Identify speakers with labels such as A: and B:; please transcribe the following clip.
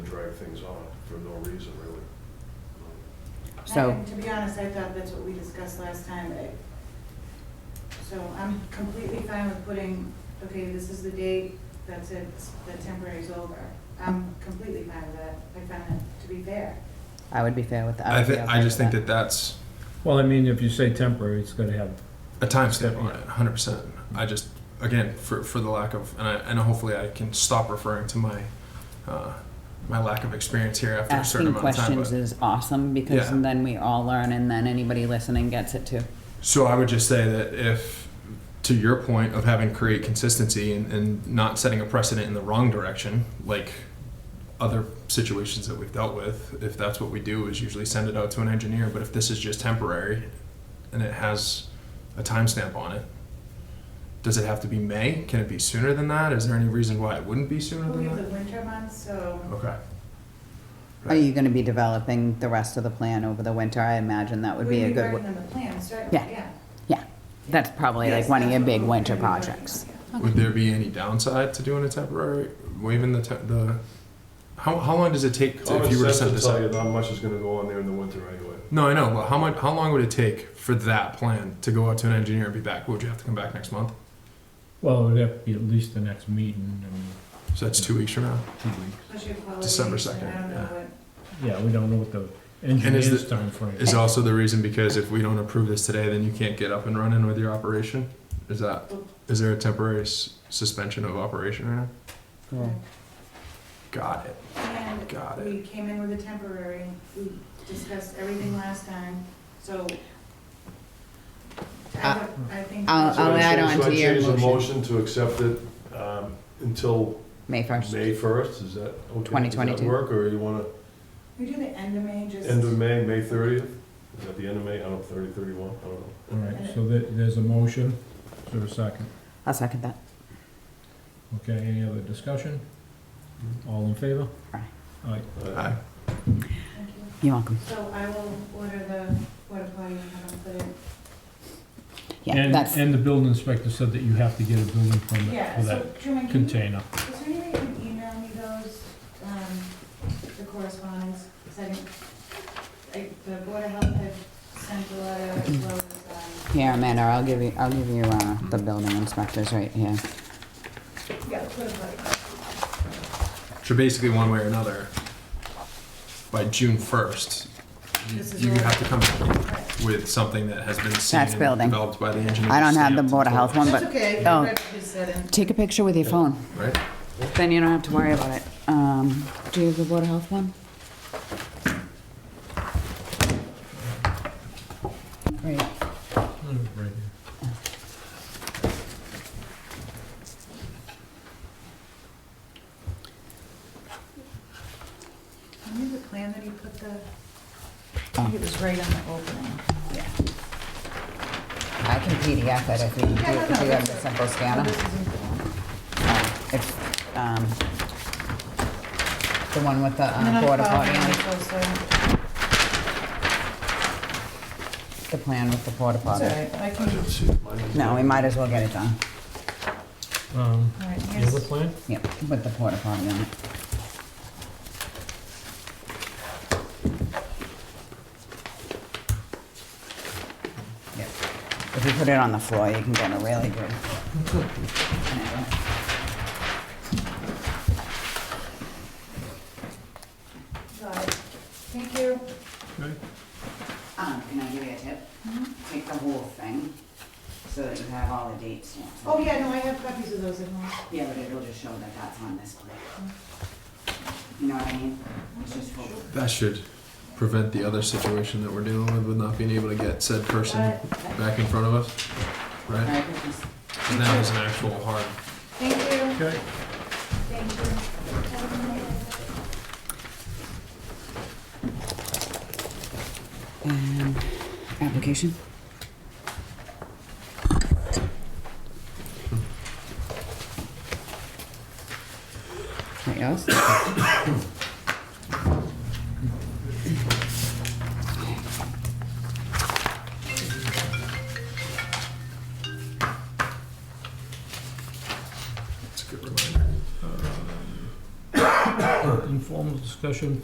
A: things off for no reason, really.
B: So-
C: I- To be honest, I thought that's what we discussed last time. I- So I'm completely fine with putting, okay, this is the date, that's it, the temporary's over. I'm completely fine with that. I find it to be fair.
B: I would be fair with that.
D: I,
B: would be
D: thi-
B: okay
D: I just
B: with
D: think that that's
E: Well, I mean, if you say temporary, it's gonna have,
D: a timestamp on it, 100%.
B: Mm-hmm.
D: I just, again, for, for the lack of, and, I, and hopefully I can stop referring to my uh, my lack of experience here after a certain
B: Asking
D: amount of time.
B: questions
D: but-
B: is awesome because
D: Yeah.
B: then we all learn and then anybody listening gets it too.
D: So I would just say that if, to your point of having create consistency and, and not setting a precedent in the wrong direction, like other situations that we've dealt with, if that's what we do is usually send it out to an engineer, but if this is just temporary and it has a timestamp on it, does it have to be May? Can it be sooner than that? Is there any reason why it wouldn't be sooner
C: We have
D: than
C: the
D: that?
C: winter months, so
D: Okay.
B: Are you gonna be developing the rest of the plan over the winter? I imagine that would be a
C: we'd be
B: good,
C: working
B: w-
C: on the plan, certainly,
B: Yeah.
C: yeah.
B: yeah. That's probably like
C: Yes,
B: one of your
C: that's
B: big
C: what
B: winter
C: we're gonna be working
B: projects.
C: on, yeah.
D: Would there be any downside to doing a temporary, waiving the, te- the, how, how long does it take to-
A: Common
D: if you were to
A: sense
D: send
A: will
D: this out?
A: tell you not much is gonna go on there in the winter anyway.
D: No, I know, but how much? How long would it take for that plan to go out to an engineer and be back? Would you have to come back next month?
E: well, it'd have to be at least the next meeting, I
D: So that's two weeks from now.
E: mean, two weeks.
C: Especially with holidays,
D: December
C: and I
D: 2nd,
C: don't know
D: yeah.
C: what,
E: Yeah, we don't know what the
D: is
E: engineer's
D: the-
E: timeframe
D: Is also the reason because if we don't approve this today, then you can't get up and running with your operation. Is that? Is there a temporary s- suspension of operation right now?
B: Cool.
D: Got it.
C: And
D: Got it.
C: We came in with a temporary, we discussed everything last time, so. I
B: Uh,
C: would- I think.
B: I'll-
A: So
B: I'll
A: I
B: add
A: change-
B: on
A: so I
B: to your
A: change the
B: motion.
A: motion to accept it um, until
B: May first.
A: May first, is that okay? Does
B: 2022.
A: that work, or you wanna,
C: We do the end of May, just.
A: end of May, May thirtieth? Is that the end of May? I don't know, thirty, thirty-one, I don't know.
E: All right, so there, there's a motion, is there a second?
B: I'll second that.
E: Okay, any other discussion? All in favor?
B: Aye.
E: Aye.
D: Aye.
C: Thank you.
B: You're welcome.
C: So I will order the water potty and have them put it,
B: Yeah,
E: And,
B: that's,
E: and the building inspector said that you have to get a building permit
C: yeah,
E: for
C: so
E: that
C: Truman, can you- is
E: container.
C: there any way you can email me those, um, the correspondence? 'Cause I didn't- I- the Board of Health had sent a letter as well as, um,
B: here, Amanda, I'll give you, I'll give you, uh, the building inspectors right here.
C: yeah, the water potty.
D: So basically, one way or another, by June first, you,
C: This is
D: you
C: all-
D: have to come back
C: Right.
D: with something that has been seen
B: That's
D: and
B: building.
D: developed by the engineer.
B: I don't have the
D: stamped,
B: Board of Health one,
C: That's
B: but
C: okay,
B: oh.
C: I read what you said and-
B: take a picture with your phone.
D: Right.
B: Then you don't have to worry about it. Um, do you have the Board of Health one? Great.
E: Right here.
C: I knew the plan that he put the, I
B: Oh.
C: think it was right on the opening.
B: I can PDF it if you do,
C: Yeah, no,
B: if
C: no,
B: you have
C: that's
B: a
C: it.
B: simple
C: Oh,
B: scanner.
C: this isn't-
B: Oh, It's, um, the one with the
C: And then
B: uh,
C: I
B: porta
C: found
B: potty, on it.
C: it also, so-
B: the plan with the porta
C: It's all
B: potty.
C: right, I can,
A: I
C: all
A: didn't see it. Mine is-
B: No, we might as well get it done.
E: Um,
C: right,
E: you have a
C: here's,
E: plan?
B: Yep, with the porta potty on it. Yep. If you put it on the floor, you can get a really good.
C: got it. Thank you.
E: Okay.
B: Um, can I give you a tip? Take the whole thing, so that you have all the dates stamped.
C: Oh, yeah, no, I have copies of those at home.
B: Yeah, but it'll just show that that's on this plan. You know what I mean? It's just full.
D: That should prevent the other situation that we're dealing with with not being able to get said person back in front of us, right?
B: Merry Christmas.
D: And that was an actual hard.
C: Thank you,
E: Okay.
C: thank you. Have a good night.
B: Um, application? What else?
D: It's a good reminder.
E: Inform formal discussion